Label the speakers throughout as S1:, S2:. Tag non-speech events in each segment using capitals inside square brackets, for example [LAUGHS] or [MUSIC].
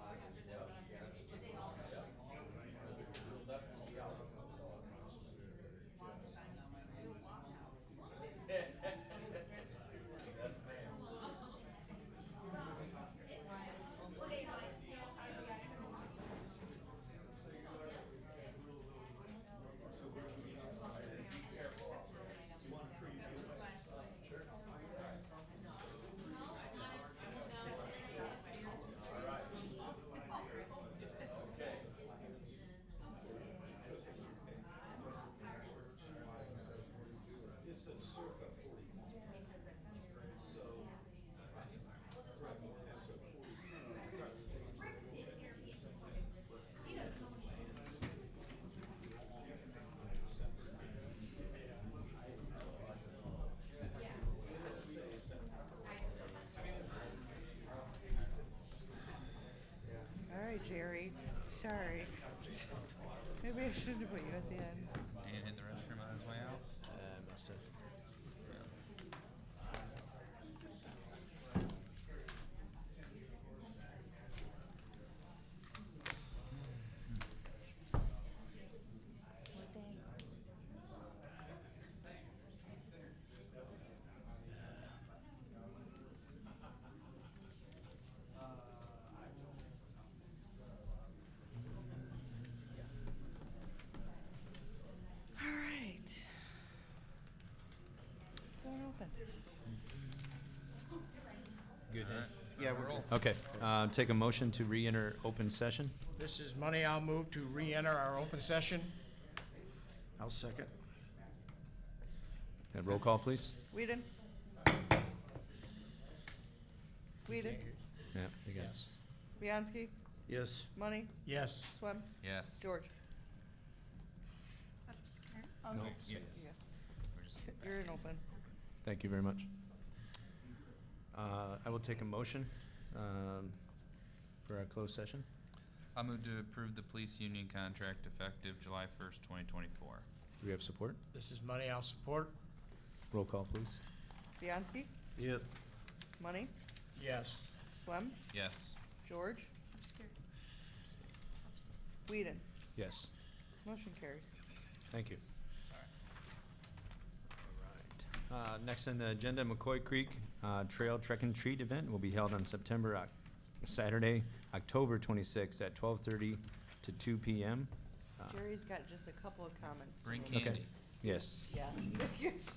S1: uh, uh,
S2: Jerry. Sorry. Maybe I shouldn't have put you at the end.
S3: Dan hit the restroom on his way out.
S4: Uh, must have.
S2: What day? All right. Going open.
S4: Good.
S3: All right.
S1: Yeah, we're
S3: Roll.
S4: Okay. Um, take a motion to re-enter open session.
S1: This is money. I'll move to re-enter our open session. I'll second.
S4: And Uh, roll call, please.
S2: Whedon? Whedon?
S4: Yeah. You got it.
S2: Bianski?
S1: Yes.
S2: Money?
S1: Yes.
S2: Swem?
S3: Yes.
S2: George?
S4: No.
S3: Yes.
S2: Yes.
S3: We're just
S2: [LAUGHS] You're in open.
S4: Thank you very much. Uh, I will take a motion um, for our closed session.
S3: I'll move to approve the police union contract effective July first, twenty twenty-four.
S4: Do we have support?
S1: This is money. I'll support.
S4: Roll call, please.
S2: Bianski?
S1: Yep.
S2: Money?
S1: Yes.
S2: Swem?
S3: Yes.
S2: George? Whedon?
S4: Yes.
S2: Motion carries.
S4: Thank you.
S3: Sorry.
S4: All right. Uh, next on the agenda, McCoy Creek uh, Trail Trek and Treat event will be held on September Oc- Saturday, October 26th at 12:30 to 2 p.m. Uh,
S2: Jerry's got just a couple of comments. to
S3: Bring
S2: make.
S4: Okay.
S3: candy.
S4: Yes.
S2: Yeah. [LAUGHS] Yes.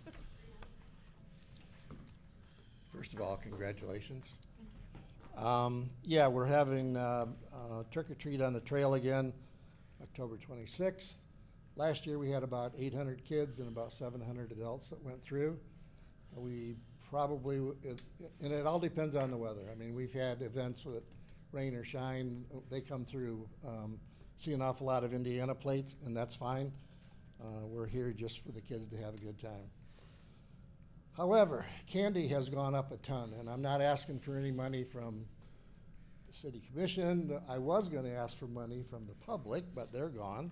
S5: First of all, congratulations. Um, yeah, we're having, uh, uh, trick or treat on the trail again, October twenty-sixth. Last year, we had about eight hundred kids and about seven hundred adults that went through. We probably, w- it- and it all depends on the weather. I mean, we've had events with rain or shine, they come through. Um, See an awful lot of Indiana plates, and that's fine. Uh, we're here just for the kids to have a good time. However, candy has gone up a ton, and I'm not asking for any money from the city commission. I was gonna ask for money from the public, but they're gone.